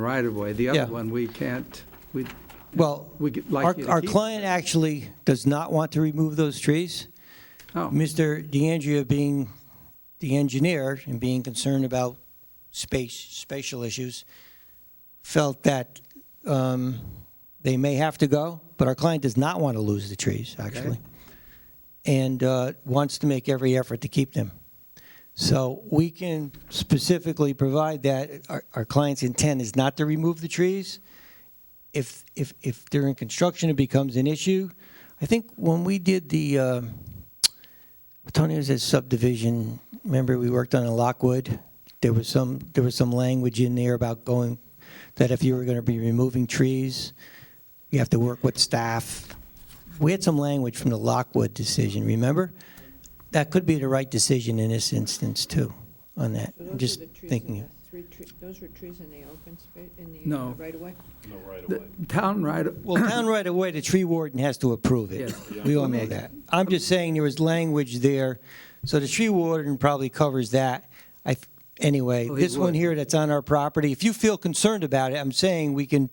right of way. The Yeah. other one, we can't, we, Well, We could like our, you to our keep it. client actually does not want to remove those trees. oh, Mr. DeAndrea being the engineer and being concerned about space, spatial issues, felt that um, they may have to go, but our client does not want to lose the trees, actually, and uh, wants to make every effort to keep them. So we can specifically provide that our, our client's intent is not to remove the trees. If, if, if during construction it becomes an issue, I think when we did the, uh, Tony was at subdivision, remember we worked on in Lockwood? There was some, there was some language in there about going, that if you were gonna be removing trees, you have to work with staff. We had some language from the Lockwood decision, remember? That could be the right decision in this instance too, on that. So those I'm are just the trees in thinking. the three tree- Those are trees in the open space, in the No. uh, right of way? the town right, of- Well, town right away, the tree warden has to approve it. Yes. We all know that. I'm just saying there was language there, so the tree warden probably covers that. I, anyway, Well, Oh, he this one would. here that's on our property, if you feel concerned about it, I'm saying we can,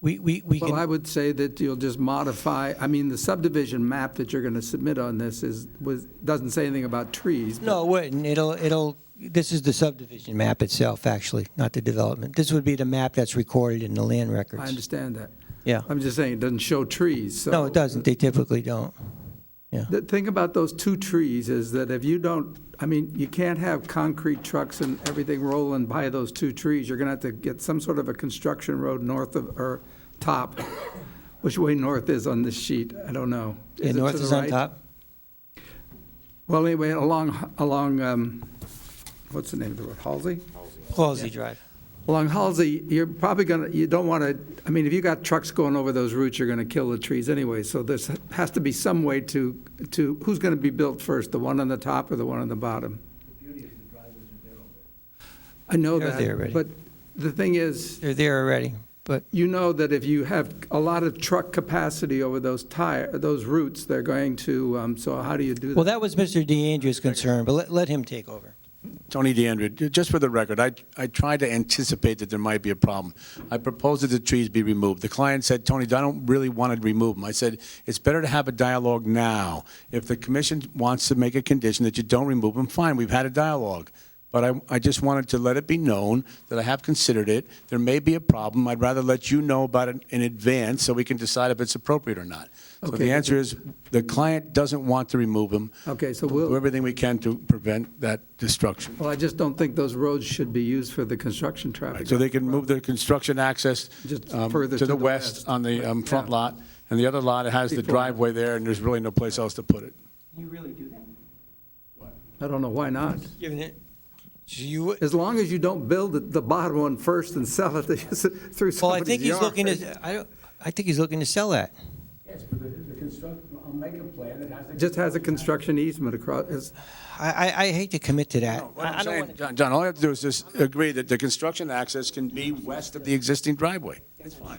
we, we, we well, I can, would say that you'll just modify, I mean, the subdivision map that you're going to submit on this is, was, doesn't say anything about trees. but- no, it wouldn't. It'll, it'll, this is the subdivision map itself, actually, not the development. This would be the map that's recorded in the land I records. understand that. Yeah. I'm just saying, it doesn't show trees, so. No, it doesn't. They typically don't. The thing about those two trees is that if you don't, I mean, you can't have concrete trucks and everything rolling by those two trees. You're going to have to get some sort of a construction road north of, or top, which way north is on this sheet, I don't know. Yeah, it to north the is on right? top. Well, anyway, along, along, um, what's the name of the road, Halsey? Clausey Drive. Along Halsey, you're probably going to, you don't want to, I mean, if you got trucks going over those routes, you're going to kill the trees anyway. So there's, has to be some way to, to, who's going to be built first, the one on the top or the one on the bottom? I know They're there that, already. but the thing is, They're there already, but you know that if you have a lot of truck capacity over those tire, those routes, they're going to, um, so how do you do that? Well, that was Mr. DeAndrea's concern, but let, let him take over. Tony DeAndrea, ju- just for the record, I, I tried to anticipate that there might be a problem. I proposed that the trees be removed. The client said, Tony, I don't really want to remove them. I said, it's better to have a dialogue now. If the commission wants to make a condition that you don't remove them, fine, we've had a dialogue. But I, I just wanted to let it be known that I have considered it. There may be a problem. I'd rather let you know about it in advance so we can decide if it's appropriate or not. So Okay, the but answer is, the client doesn't want to remove them. Okay, so We'll do we'll, everything we can to prevent that destruction. well, I just don't think those roads should be used for the construction traffic. So they can move the construction access Just um, further to the west on the um, front Yeah. lot, and the other lot, it has the Before. driveway there, and there's really no place else to put it. You really do that? I don't know, why not? Given it, so you, As long as you don't build it- the bottom one first and sell it through somebody's yard. well, I think he's looking to, I don't, I think he's looking to sell that. Yes, but the construct, I'll make a plan that has. Just has a construction easement across, it's- I, I, I hate to commit to that. I I don't want, John, John, all I have to do is just agree that the construction access can be west of the existing driveway. That's fine.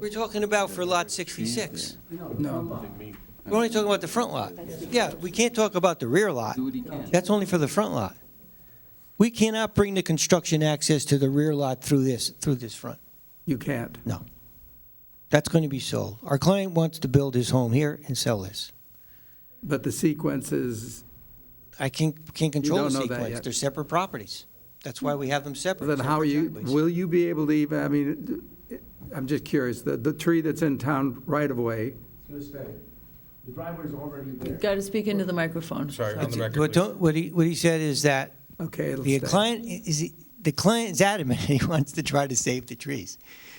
we're talking about for lot sixty-six. no. We're only talking about the front lot. Yeah, we can't talk about the rear lot. That's only for the front lot. We cannot bring the construction access to the rear lot through this, through this front. You can't. That's going to be sold. Our client wants to build his home here and sell this. But the sequence is, I can't, can't control the don't know that sequence. yet. They're separate properties. That's why we have them separate. then how are separate you, driveways. will you be able to even, I mean, I'm just curious, the, the tree that's in town right of way, The driveway's already there. Got to speak into the microphone. Sorry, on the What record, please. don't- What he, what he said is that okay, it'll the stay. client, is, he- the client is adamant, he wants to try to save the trees.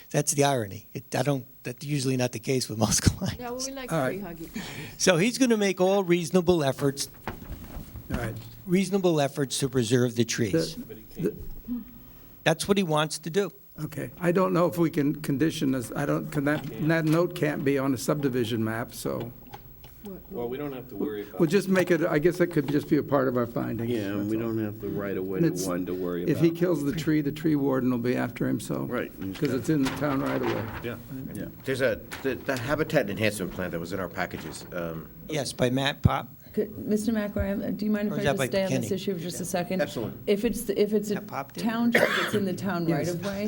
That's the irony. It, I don't, that's usually not the case with most Yeah, well, clients. we like All tree right. huggy. So he's going to make all reasonable efforts, All right. reasonable efforts to preserve the trees. the- That's what he wants to do. Okay. I don't know if we can condition this, I don't, can that, that note can't be on a subdivision map, so Well, we don't have to worry about. we'll just make it, I guess it could just be a part of our findings. Yeah, and we that's all. don't have the right of way And to it's- one to worry about. If he kills the tree, the tree warden will be after him, so. Right. Because it's in the town right away. There's a, the the habitat enhancement plan that was in our packages, um, Yes, by Matt Pop. Could- Mr. McRae, do you mind Or if is that I just by stay on this Kenny? issue for just a second? Absolutely. If it's, if it's a That popped in. town, it's in the town right of way,